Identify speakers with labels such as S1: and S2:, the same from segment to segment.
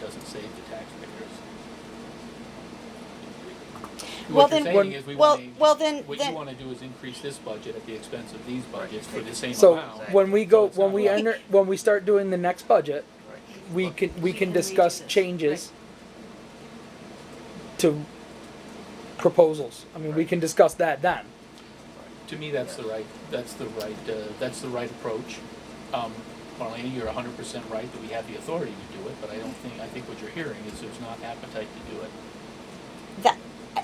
S1: doesn't save the taxpayers.
S2: Well,
S1: What
S2: then-
S1: you're saying is we
S2: well-
S1: want to.
S2: well, then-
S1: What
S2: then-
S1: you want to do is increase this budget at the expense of these budgets for the same
S3: So
S1: amount.
S3: when we go,
S1: So it's
S3: when
S1: not
S3: we
S1: right.
S3: enter, when we start doing the next budget, we
S1: Right.
S3: can, we
S4: We
S3: can
S4: can redo
S3: discuss
S4: this.
S3: changes to proposals. I mean, we can discuss that then.
S1: To me, that's the right, that's the right, uh, that's the right approach. Um, Marlena, you're hundred percent right that we have the authority to do it, but I don't think, I think what you're hearing is there's not appetite to do it.
S2: That,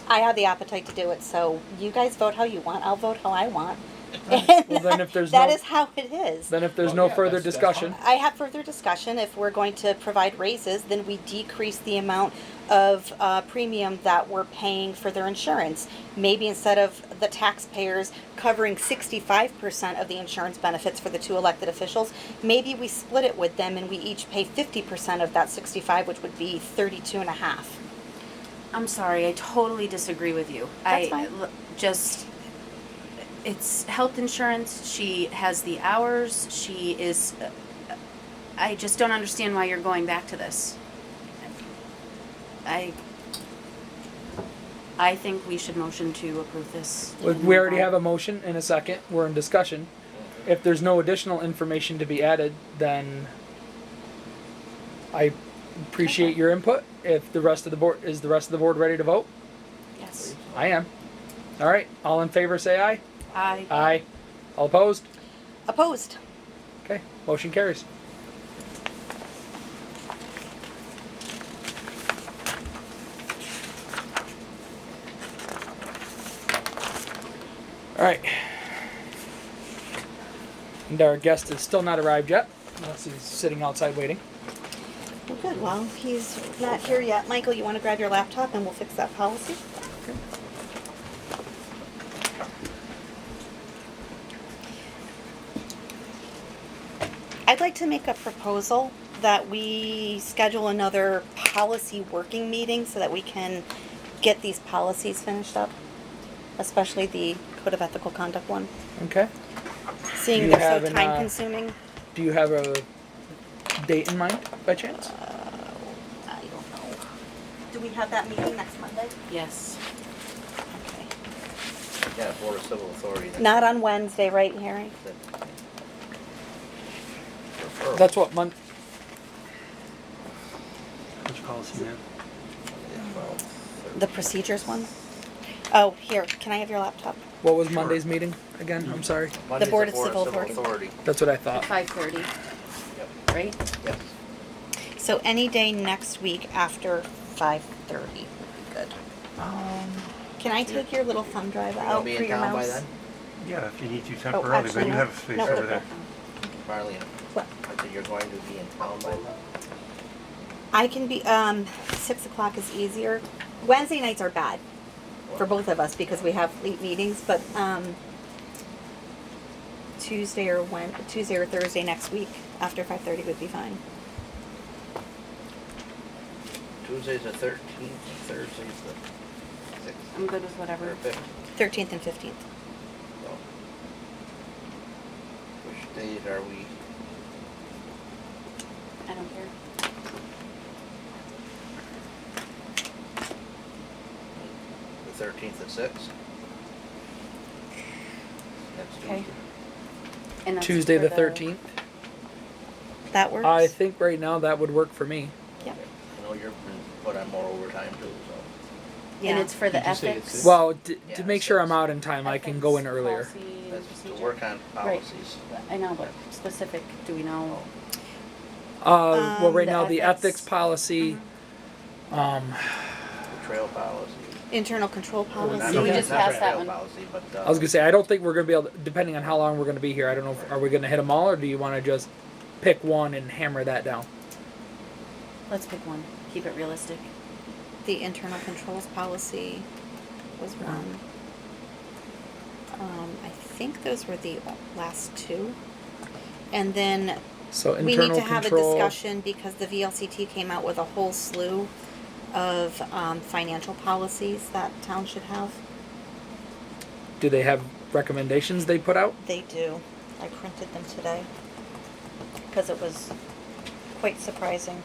S2: I have the appetite to do it, so you guys vote how you want, I'll vote how I want. And
S3: Well, then if there's
S2: That
S3: no-
S2: is how it is.
S3: Then if there's
S1: Well,
S3: no
S1: yeah,
S3: further
S1: that's- that's
S3: discussion,
S2: I have further discussion, if we're going to provide raises, then we decrease the amount of, uh, premium that we're paying for their insurance. Maybe instead of the taxpayers covering sixty-five percent of the insurance benefits for the two elected officials, maybe we split it with them and we each pay fifty percent of that sixty-five, which would be thirty-two and a half.
S4: I'm sorry, I totally disagree with you.
S2: That's
S4: I
S2: fine.
S4: l- just it's health insurance. She has the hours. She is uh, I just don't understand why you're going back to this. I I think we should motion to approve this.
S3: we- we already have a motion and a second, we're in discussion. If there's no additional information to be added, then I appreciate your input. If the rest of the board, is the rest of the board ready to vote?
S4: Yes.
S3: I am. All right, all in favor, say aye.
S4: I
S3: Aye. All opposed?
S2: Opposed?
S3: Okay, motion carries. All right. And our guest is still not arrived yet, unless he's sitting outside waiting.
S2: Well, good, well, he's not here yet. Michael, you wanna grab your laptop and we'll fix that policy? I'd like to make a proposal that we schedule another policy working meeting so that we can get these policies finished up, especially the Code of Ethical Conduct one,
S3: Okay. Do
S2: seeing
S3: you
S2: they're
S3: have
S2: so
S3: an, uh,
S2: time consuming.
S3: Do you have a date in mind by chance?
S2: uh, I don't know. Do we have that meeting next Monday?
S4: yes.
S2: Okay.
S5: Yeah, Board of Civil Authority. that-
S2: Not on Wednesday, right, Harry?
S5: that- Referral.
S3: That's what month.
S6: Which policy, ma'am?
S5: Yeah, well,
S2: The procedures one? Oh, here, can I have your laptop?
S3: What was Monday's meeting again? I'm sorry.
S5: Monday's
S2: Board of Civil Authority.
S3: That's what I thought.
S4: Five thirty,
S5: Yep,
S4: right?
S5: yes.
S2: So any day next week after five thirty would be good.
S5: Um,
S2: Can I take your little thumb drive
S5: I'll
S2: out for
S5: be in
S2: your
S5: town by
S2: mouse?
S5: then,
S6: Yeah, if you need to temporarily,
S2: Oh,
S6: but
S2: actually,
S6: you
S2: no.
S6: have a space
S2: No.
S6: over there.
S5: Marlene.
S2: What?
S5: I said you're going to be in town by then.
S2: I can be, um, six o'clock is easier. Wednesday nights are bad for both of us because we have late meetings, but, um, Tuesday or Wed, Tuesday or Thursday next week after five thirty would be fine.
S5: Tuesday's the thirteenth, Thursday's the sixth,
S4: I'm good with
S5: or
S4: whatever.
S5: fifth,
S2: Thirteenth and fifteenth.
S5: so. Which date are we?
S4: I don't care.
S5: The thirteenth at six? Next
S4: Okay.
S5: Tuesday.
S4: And that's
S3: Tuesday
S4: for
S3: the thirteenth.
S2: That works?
S3: I think right now that would work for me.
S2: Yeah.
S5: Okay. I know you're, but I'm more overtime too, so.
S2: Yeah.
S4: And it's for the
S1: Did you say
S4: ethics.
S1: it's-
S3: Well, to,
S5: Yeah,
S3: to make sure I'm
S5: six.
S3: out in time, I can go in
S4: Ethics,
S3: earlier.
S4: policy,
S5: That's to
S4: procedure.
S5: work on
S4: Right.
S5: policies.
S4: I know, but specific, do we know?
S3: Uh, well,
S2: Um, Mm-hmm.
S3: right
S4: the
S3: now, the
S4: ethics.
S3: ethics policy, um,
S5: The trail policy.
S2: Internal control
S3: Oh,
S5: Not-
S4: So we
S2: policy.
S5: not-
S4: just
S5: not
S4: passed that
S5: trail
S4: one.
S5: Policy, but, uh.
S3: I was gonna say, I don't think we're gonna be able, to- depending on how long we're gonna be here, I don't know, if- are we gonna hit them all or do you wanna just pick one and hammer that down?
S4: Let's pick one, keep it realistic.
S2: The internal controls policy was one. Um, I think those were the last two. And then
S3: So
S2: we need
S3: internal
S2: to have a
S3: control,
S2: discussion because the VLCT came out with a whole slew of, um, financial policies that town should have.
S3: do they have recommendations they put out?
S2: They do. I printed them today because it was quite surprising.